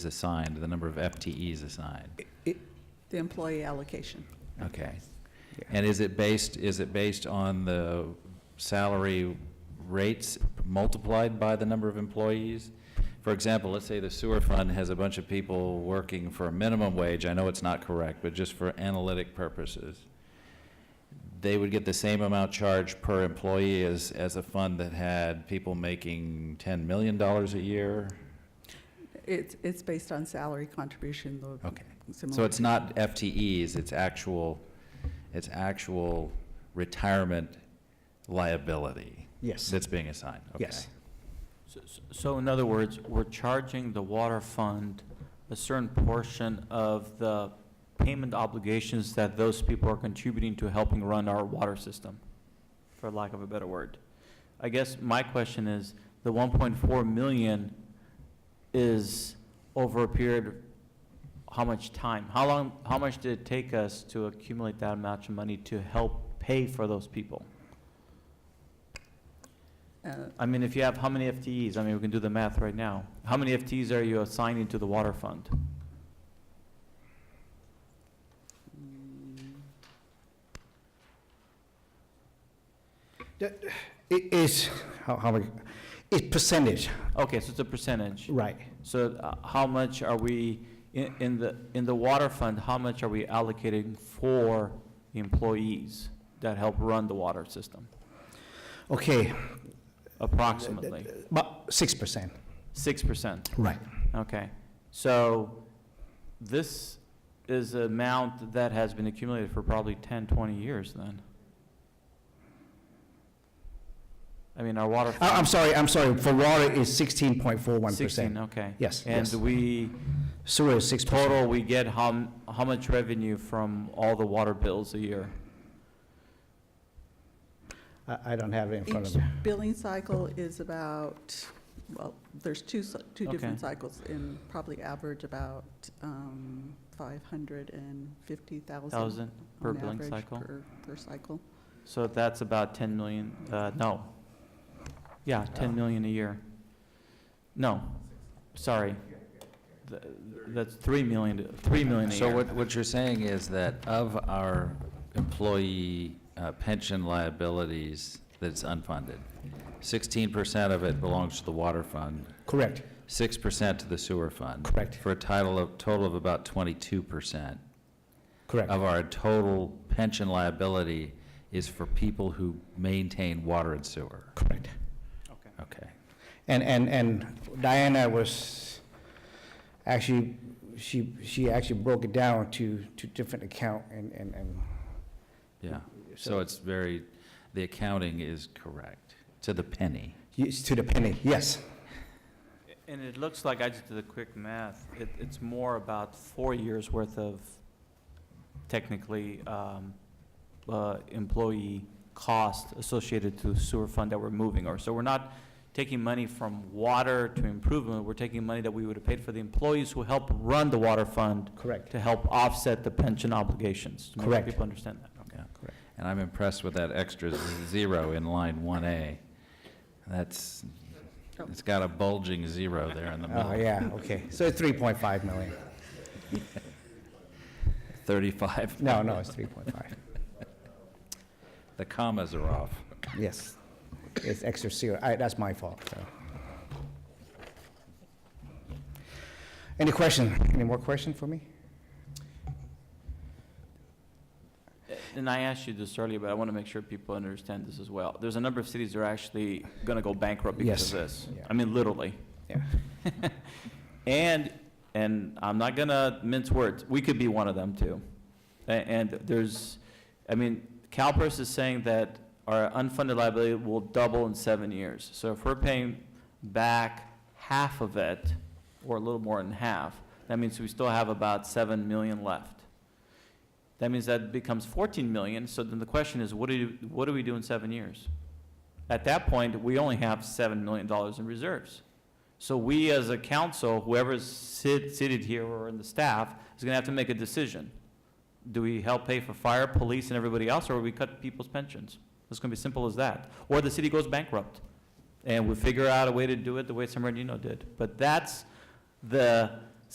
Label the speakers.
Speaker 1: assigned, the number of FTEs assigned.
Speaker 2: The employee allocation.
Speaker 1: Okay. And is it based, is it based on the salary rates multiplied by the number of employees? For example, let's say the sewer fund has a bunch of people working for a minimum wage, I know it's not correct, but just for analytic purposes. They would get the same amount charged per employee as, as a fund that had people making $10 million a year?
Speaker 2: It's, it's based on salary contribution, though.
Speaker 1: Okay. So it's not FTEs, it's actual, it's actual retirement liability
Speaker 3: Yes,
Speaker 1: that's being assigned? Okay.
Speaker 3: Yes.
Speaker 4: So- So in other words, we're charging the water fund a certain portion of the payment obligations that those people are contributing to helping run our water system, for lack of a better word. I guess my question is, the 1.4 million is over a period, of how much time? How long, how much did it take us to accumulate that amount of money to help pay for those people?
Speaker 2: Uh,
Speaker 4: I mean, if you have, how many FTEs? I mean, we can do the math right now. How many FTEs are you assigning to the water fund?
Speaker 2: mm,
Speaker 3: it is, how, how, we- it's percentage,
Speaker 4: Okay, so it's a percentage.
Speaker 3: right.
Speaker 4: So uh, how much are we, in, in the, in the water fund, how much are we allocating for employees that help run the water system,
Speaker 3: Okay,
Speaker 4: approximately?
Speaker 3: about 6%,
Speaker 4: Six percent?
Speaker 3: right.
Speaker 4: Okay, so this is an amount that has been accumulated for probably 10, 20 years then? I mean, our water.
Speaker 3: I- Uh, I'm sorry, I'm sorry, for water is 16.41%.
Speaker 4: 16, okay.
Speaker 3: Yes,
Speaker 4: And
Speaker 3: yes.
Speaker 4: we,
Speaker 3: Sewer is 6%.
Speaker 4: total, we get how, m- how much revenue from all the water bills a year?
Speaker 3: I, I don't have it in front of
Speaker 2: Each
Speaker 3: me.
Speaker 2: billing cycle is about, well, there's two, cy- two different
Speaker 4: Okay.
Speaker 2: cycles and probably average about um, 550,000.
Speaker 4: Thousand per
Speaker 2: on
Speaker 4: billing
Speaker 2: average
Speaker 4: cycle?
Speaker 2: Per, per cycle.
Speaker 4: So that's about 10 million, uh, no. Yeah, 10 million a year. No, sorry. Th- That's 3 million, 3 million a year.
Speaker 1: So what, what you're saying is that of our employee uh, pension liabilities that's unfunded, 16% of it belongs to the water fund,
Speaker 3: Correct,
Speaker 1: 6% to the sewer fund.
Speaker 3: Correct.
Speaker 1: For a title of, total of about 22%.
Speaker 3: correct,
Speaker 1: of our total pension liability is for people who maintain water and sewer.
Speaker 3: correct.
Speaker 1: Okay.
Speaker 3: And, and, and Diana was, actually, she, she actually broke it down to, to different account and, and, and
Speaker 1: Yeah. So it's very, the accounting is correct, to the penny.
Speaker 3: it's to the penny, yes.
Speaker 4: And it looks like, I just did a quick math, it, it's more about four years' worth of technically, um, uh, employee cost associated to sewer fund that we're moving, or, so we're not taking money from water to improvement, we're taking money that we would have paid for the employees who help run the water fund
Speaker 3: Correct.
Speaker 4: to help offset the pension obligations. to make sure
Speaker 3: Correct.
Speaker 4: People understand that, okay.
Speaker 1: Yeah. And I'm impressed with that extra zero in line 1A. That's, it's got a bulging zero there in the
Speaker 3: Oh,
Speaker 1: middle.
Speaker 3: yeah, okay, so it's 3.5 million.
Speaker 1: 35.
Speaker 3: No, no, it's 3.5.
Speaker 1: The commas are off.
Speaker 3: Yes, it's extra zero. I, that's my fault, so. Any question? Any more question for me?
Speaker 4: And I asked you this earlier, but I want to make sure people understand this as well. There's a number of cities that are actually going to go bankrupt because of this.
Speaker 3: yeah.
Speaker 4: I mean, literally.
Speaker 3: Yeah.
Speaker 4: And, and I'm not going to mince words, we could be one of them too. A- And there's, I mean, CalPERS is saying that our unfunded liability will double in seven years. So if we're paying back half of it, or a little more than half, that means we still have about 7 million left. That means that becomes 14 million, so then the question is, what do you, what do we do in seven years? At that point, we only have $7 million in reserves. So we, as a council, whoever's sit- seated here or in the staff, is gonna have to make a decision. Do we help pay for fire, police, and everybody else, or we cut people's pensions? It's gonna be simple as that. Or the city goes bankrupt, and we figure out a way to do it the way San Bernardino did. But that's the